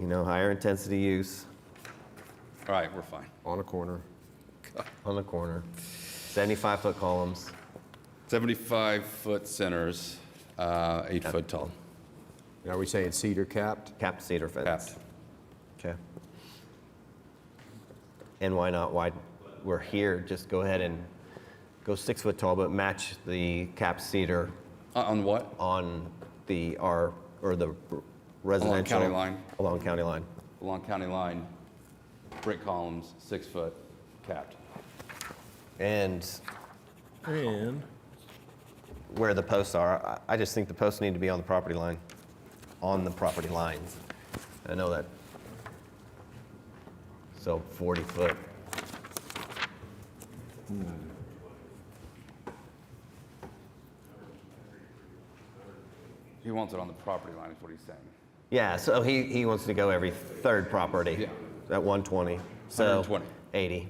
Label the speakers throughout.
Speaker 1: you know, higher intensity use
Speaker 2: All right, we're fine.
Speaker 3: on a corner.
Speaker 1: on the corner, 75 foot columns.
Speaker 2: 75-foot centers, uh, eight-foot tall,
Speaker 3: Are we saying cedar capped?
Speaker 1: capped cedar fence.
Speaker 2: capped.
Speaker 1: Okay. And why not? Why we're here? Just go ahead and go six foot tall, but match the capped cedar
Speaker 2: Uh, On what?
Speaker 1: on the R or the residential
Speaker 2: county line.
Speaker 1: Along county line.
Speaker 2: Along county line, brick columns, six-foot, capped.
Speaker 1: And
Speaker 4: And
Speaker 1: where the posts are, I, I just think the posts need to be on the property line, on the property lines. I know that. So 40 foot.
Speaker 2: He wants it on the property line, is what he's saying.
Speaker 1: Yeah, so he, he wants to go every third property.
Speaker 2: Yeah.
Speaker 1: At 120, so.
Speaker 2: 120.
Speaker 1: 80.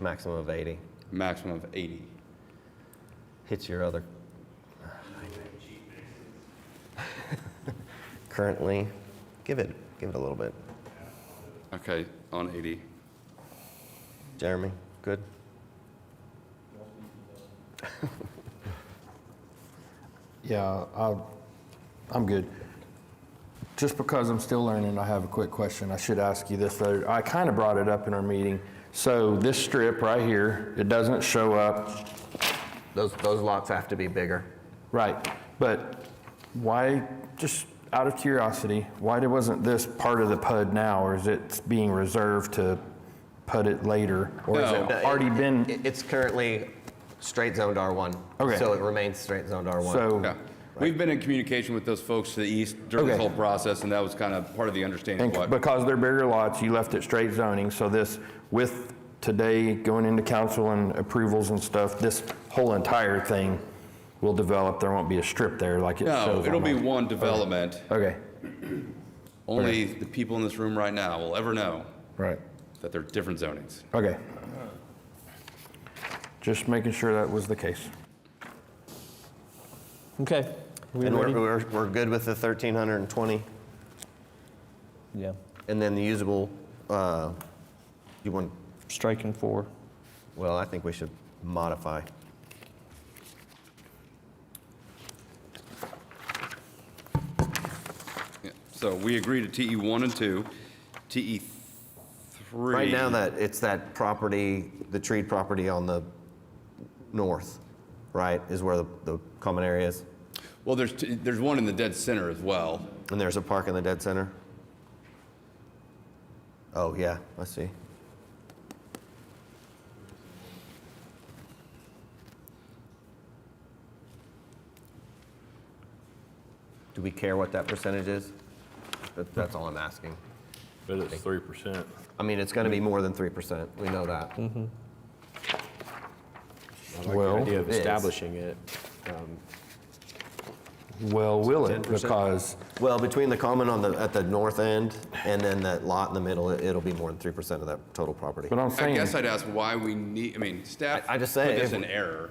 Speaker 1: Maximum of 80.
Speaker 2: Maximum of 80.
Speaker 1: Hits your other. Currently, give it, give it a little bit.
Speaker 2: Okay, on 80.
Speaker 1: Jeremy, good?
Speaker 5: Yeah, I, I'm good. Just because I'm still learning, I have a quick question. I should ask you this though. I kind of brought it up in our meeting. So this strip right here, it doesn't show up,
Speaker 1: Those, those lots have to be bigger.
Speaker 5: right? But why? Just out of curiosity, why there wasn't this part of the PUD now, or is it being reserved to PUD it later, or has
Speaker 2: No.
Speaker 5: it already been?
Speaker 1: It- It's currently straight zoned R1.
Speaker 5: Okay.
Speaker 1: So it remains straight zoned R1.
Speaker 5: so
Speaker 2: Yeah. We've been in communication with those folks to the east during this
Speaker 5: Okay.
Speaker 2: whole process, and that was kind of part of the understanding
Speaker 5: And
Speaker 2: of what.
Speaker 5: because they're bigger lots, you left it straight zoning, so this, with today going into council and approvals and stuff, this whole entire thing will develop, there won't be a strip there like it shows.
Speaker 2: No,
Speaker 5: on
Speaker 2: it'll be
Speaker 5: my-
Speaker 2: one development.
Speaker 5: Okay,
Speaker 2: Only the people in this room right now will ever know
Speaker 5: right,
Speaker 2: that they're different zonings.
Speaker 5: okay. Just making sure that was the case.
Speaker 4: okay. We
Speaker 1: And we're,
Speaker 4: ready?
Speaker 1: we're, we're good with the 1,320,
Speaker 4: Yeah.
Speaker 1: and then the usable, uh, you want,
Speaker 4: Striking four.
Speaker 1: well, I think we should modify.
Speaker 2: Yeah. So we agree to TE one and two, TE three.
Speaker 1: Right now, that, it's that property, the tree property on the north, right, is where the, the common area is?
Speaker 2: Well, there's, t- there's one in the dead center as well.
Speaker 1: And there's a park in the dead center? Oh, yeah, I see. Do we care what that percentage is? That- That's all I'm asking.
Speaker 6: But it's three percent.
Speaker 1: I mean, it's going to be more than 3%, we know that.
Speaker 5: Well,
Speaker 6: Idea of
Speaker 1: It is.
Speaker 6: establishing it. um,
Speaker 5: well, will it, because,
Speaker 1: Well, between the common on the, at the north end and then that lot in the middle, it- it'll be more than 3% of that total property.
Speaker 5: but I'm
Speaker 2: I
Speaker 5: saying,
Speaker 2: guess I'd ask why we need, I mean, staff.
Speaker 1: I- I just say
Speaker 2: Put this
Speaker 1: if-
Speaker 2: in error.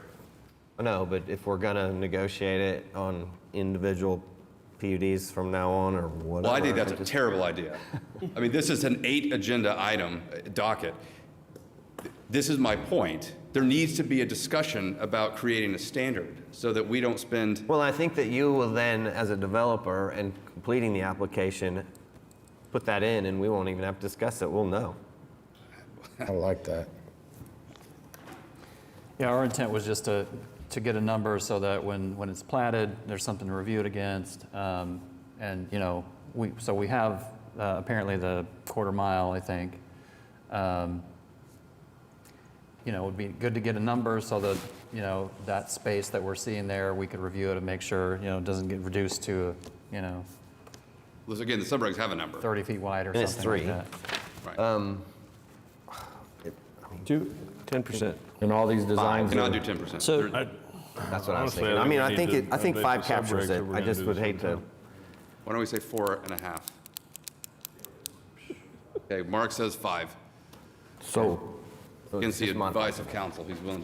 Speaker 1: No, but if we're gonna negotiate it on individual PUDs from now on or whatever.
Speaker 2: Well, I think that's a terrible idea. I mean, this is an eight agenda item uh, docket. This is my point. There needs to be a discussion about creating a standard so that we don't spend,
Speaker 1: Well, I think that you will then, as a developer and completing the application, put that in and we won't even have to discuss it. We'll know.
Speaker 5: I like that.
Speaker 7: Yeah, our intent was just to, to get a number so that when, when it's platted, there's something to review it against. Um, And, you know, we, so we have uh, apparently the quarter mile, I think. Um, You know, it would be good to get a number so that, you know, that space that we're seeing there, we could review it and make sure, you know, it doesn't get reduced to, you know,
Speaker 2: Listen, again, the subregs have a number.
Speaker 7: 30 feet wide or
Speaker 1: And it's
Speaker 7: something like
Speaker 1: three.
Speaker 7: that.
Speaker 2: Right.
Speaker 1: um,
Speaker 6: Two, ten percent.
Speaker 5: And all these designs.
Speaker 2: Cannot
Speaker 5: are-
Speaker 2: do 10%.
Speaker 4: So-
Speaker 2: There-
Speaker 1: That's what I was
Speaker 6: Honestly, I
Speaker 1: thinking.
Speaker 6: think
Speaker 1: I mean,
Speaker 6: we
Speaker 1: I
Speaker 6: need
Speaker 1: think,
Speaker 6: to
Speaker 1: it. I think
Speaker 6: update
Speaker 1: five
Speaker 6: the
Speaker 1: captures
Speaker 6: subregs
Speaker 1: it.
Speaker 6: if we're
Speaker 1: I
Speaker 6: gonna
Speaker 1: just
Speaker 6: do
Speaker 1: would
Speaker 6: this
Speaker 1: hate to,
Speaker 6: sometime.
Speaker 2: Why don't we say four and a half? Okay, Mark says five.
Speaker 5: So
Speaker 2: Against the
Speaker 1: just modify
Speaker 2: advice of council, he's willing to